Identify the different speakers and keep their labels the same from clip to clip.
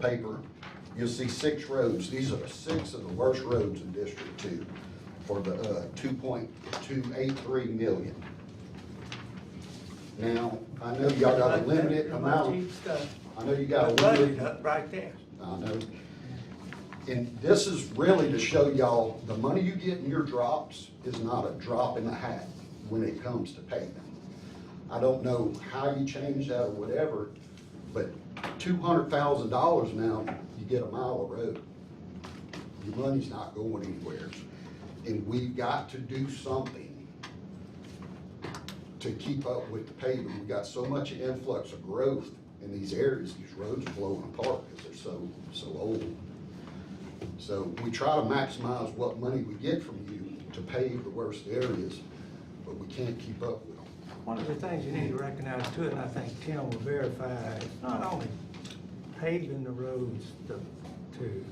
Speaker 1: paper, you'll see six roads. These are the six of the worst roads in District Two for the, uh, two point two eight three million. Now, I know y'all got a limited amount, I know you got a limited.
Speaker 2: Budget up right there.
Speaker 1: I know. And this is really to show y'all, the money you get in your drops is not a drop in the hat when it comes to paving. I don't know how you change that or whatever, but two hundred thousand dollars now, you get a mile of road. Your money's not going anywhere. And we've got to do something to keep up with the paving. We've got so much influx of growth in these areas, these roads are blowing apart because they're so, so old. So we try to maximize what money we get from you to pave the worst areas, but we can't keep up with them.
Speaker 2: One of the things you need to recognize too, and I think Tim will verify, it's not only paving the roads to, to-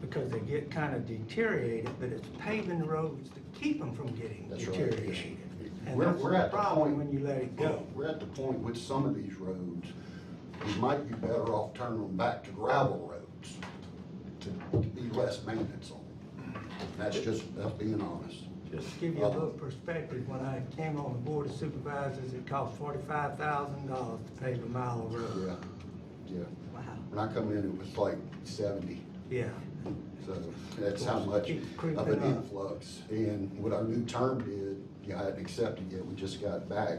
Speaker 2: because they get kind of deteriorated, but it's paving the roads to keep them from getting
Speaker 1: That's right, yes.
Speaker 2: deteriorated. And
Speaker 1: We're-
Speaker 2: that's
Speaker 1: we're at
Speaker 2: the
Speaker 1: the
Speaker 2: problem
Speaker 1: point-
Speaker 2: when you let it go.
Speaker 1: We're at the point with some of these roads, we might be better off turning them back to gravel roads to to be less maintenance on them. That's just, that's being honest.
Speaker 2: Just to give you a
Speaker 1: Uh-huh.
Speaker 2: little perspective, when I came on the board of supervisors, it cost forty-five thousand dollars to pave a mile of
Speaker 1: Yeah,
Speaker 2: road.
Speaker 1: yeah.
Speaker 2: Wow.
Speaker 1: When I come in, it was like seventy.
Speaker 2: Yeah.
Speaker 1: So that's how much
Speaker 2: Keep creeping
Speaker 1: of an
Speaker 2: up.
Speaker 1: influx. And what our new term did, yeah, I hadn't accepted yet, we just got back.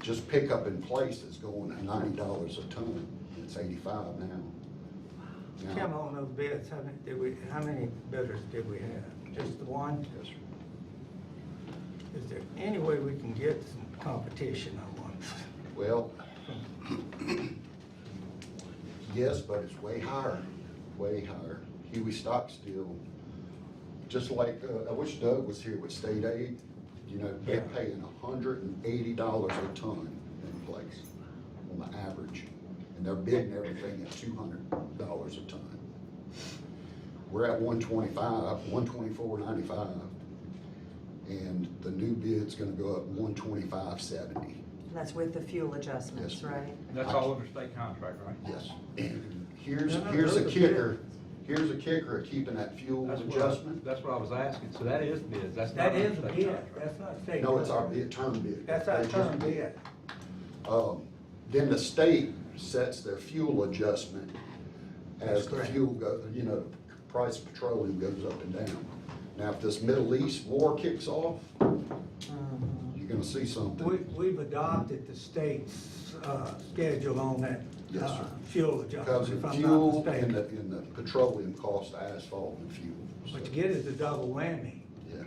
Speaker 1: Just pickup in place is going at ninety dollars a ton. It's eighty-five now. Now-
Speaker 2: Tim, on those bids, how many, did we, how many bidders did we have? Just the one?
Speaker 1: Yes, sir.
Speaker 2: Is there any way we can get some competition on one?
Speaker 1: Well, yes, but it's way higher, way higher. Huey Stockstill, just like, uh, I wish Doug was here with state aid, you know, they're
Speaker 2: Yeah.
Speaker 1: paying hundred and eighty dollars a ton in place on the average. And they're bidding everything at two hundred dollars a ton. We're at one twenty-five, one twenty-four ninety-five, and the new bid's gonna go up one twenty-five seventy.
Speaker 3: That's with the fuel
Speaker 1: Yes,
Speaker 3: adjustments,
Speaker 1: ma'am.
Speaker 3: right?
Speaker 4: That's all under state contract, right?
Speaker 1: Yes, and here's,
Speaker 2: No, no,
Speaker 1: here's a
Speaker 2: those are
Speaker 1: kicker, here's a kicker of keeping that fuel
Speaker 4: That's what-
Speaker 1: adjustment.
Speaker 4: That's what I was asking, so that is bids, that's not
Speaker 2: That
Speaker 4: under
Speaker 2: is a
Speaker 4: state
Speaker 2: bid,
Speaker 4: contract.
Speaker 2: that's not state.
Speaker 1: No, it's our bid, term bid.
Speaker 2: uh, That's our
Speaker 1: They just
Speaker 2: term bid.
Speaker 1: Um, then the state sets their fuel adjustment as
Speaker 2: That's
Speaker 1: the
Speaker 2: correct.
Speaker 1: fuel go, you know, price of petroleum goes up and down. Now, if this Middle East war kicks off, you're gonna see
Speaker 2: Mm-hmm. We,
Speaker 1: something.
Speaker 2: we've adopted the state's, uh, schedule on that,
Speaker 1: Yes,
Speaker 2: uh,
Speaker 1: sir.
Speaker 2: fuel
Speaker 1: Because of
Speaker 2: adjustment, if I'm not
Speaker 1: fuel and the,
Speaker 2: mistaken.
Speaker 1: and the petroleum cost, asphalt and fuel.
Speaker 2: What
Speaker 1: So,
Speaker 2: you get is a double whammy.
Speaker 1: Yeah,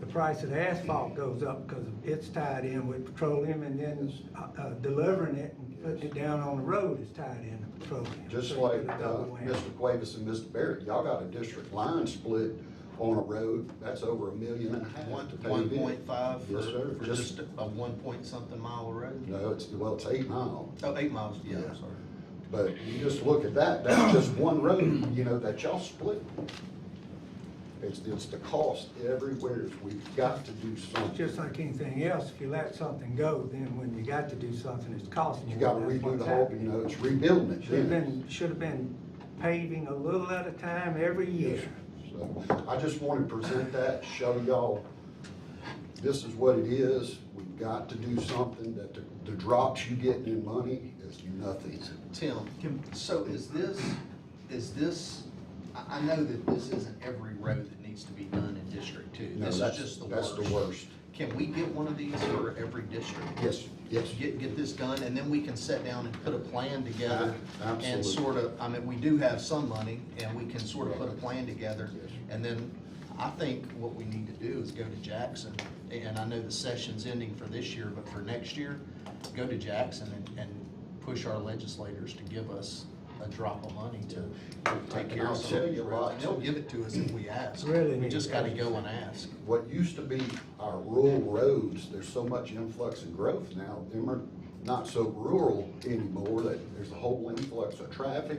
Speaker 2: The price of asphalt goes up because it's tied in with petroleum and then, uh, uh, delivering it and putting it down on the road is tied in to petroleum.
Speaker 1: Just
Speaker 2: So you
Speaker 1: like,
Speaker 2: get a
Speaker 1: uh,
Speaker 2: double whammy.
Speaker 1: Mr. Cuevas and Mr. Barrett, y'all got a district line split on a road, that's over a million and a half.
Speaker 5: One,
Speaker 1: to pave
Speaker 5: one
Speaker 1: in.
Speaker 5: point five for,
Speaker 1: Yes, sir,
Speaker 5: for
Speaker 1: just,
Speaker 5: just a one point something mile road?
Speaker 1: no, it's, well, it's eight mile,
Speaker 5: Oh, eight miles, yeah,
Speaker 1: Yeah.
Speaker 5: I'm sorry.
Speaker 1: but you just look at that, that's just one road, you know, that y'all split. It's, it's the cost everywhere, we've got to do something.
Speaker 2: Just like anything else, if you let something go, then when you got to do something, it's costing you.
Speaker 1: You gotta
Speaker 2: That's
Speaker 1: redo
Speaker 2: what's
Speaker 1: the whole,
Speaker 2: happening.
Speaker 1: you know, it's rebuilding it
Speaker 2: Should've
Speaker 1: then.
Speaker 2: been, should've been paving a little at a time every year.
Speaker 1: So I just want to present that, show y'all, this is what it is. We've got to do something that the, the drops you get in money is nothing.
Speaker 5: Tim, so is this, is this, I, I know that this isn't every road that needs to be done in District Two.
Speaker 1: No,
Speaker 5: This is
Speaker 1: that's-
Speaker 5: just the
Speaker 1: that's
Speaker 5: worst.
Speaker 1: the worst.
Speaker 5: Can we get one of these for every district?
Speaker 1: Yes, yes.
Speaker 5: Get, get this done, and then we can sit down and put a plan together.
Speaker 1: Ah, absolutely.
Speaker 5: And sort of, I mean, we do have some money, and we can sort of put a plan together.
Speaker 1: Yes.
Speaker 5: And then I think what we need to do is go to Jackson, and I know the session's ending for this year, but for next year, go to Jackson and, and push our legislators to give us a drop of money to take care
Speaker 1: I'll
Speaker 5: of some
Speaker 1: tell
Speaker 5: of
Speaker 1: you
Speaker 5: these
Speaker 1: what,
Speaker 5: roads. They'll give it to us if we ask.
Speaker 2: Really
Speaker 5: We
Speaker 2: need
Speaker 5: just
Speaker 2: to
Speaker 5: gotta
Speaker 2: ask.
Speaker 5: go and ask.
Speaker 1: What used to be our rural roads, there's so much influx and growth now, them are not so rural anymore, that there's a whole influx of traffic.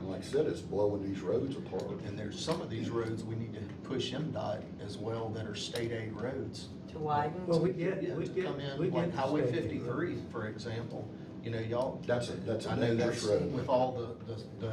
Speaker 1: And like I said, it's blowing these roads apart.
Speaker 5: And there's some of these roads we need to push MDOT as well that are state aid roads.
Speaker 3: To widen?
Speaker 2: Well, we get,
Speaker 5: Yeah,
Speaker 2: we
Speaker 5: to come
Speaker 2: get, we
Speaker 5: in,
Speaker 2: get.
Speaker 5: like
Speaker 2: the
Speaker 5: Highway
Speaker 2: state.
Speaker 5: fifty-three, for example, you know, y'all.
Speaker 1: That's a- that's a
Speaker 5: I know
Speaker 1: dangerous
Speaker 5: that's
Speaker 1: road.
Speaker 5: With all the, the, the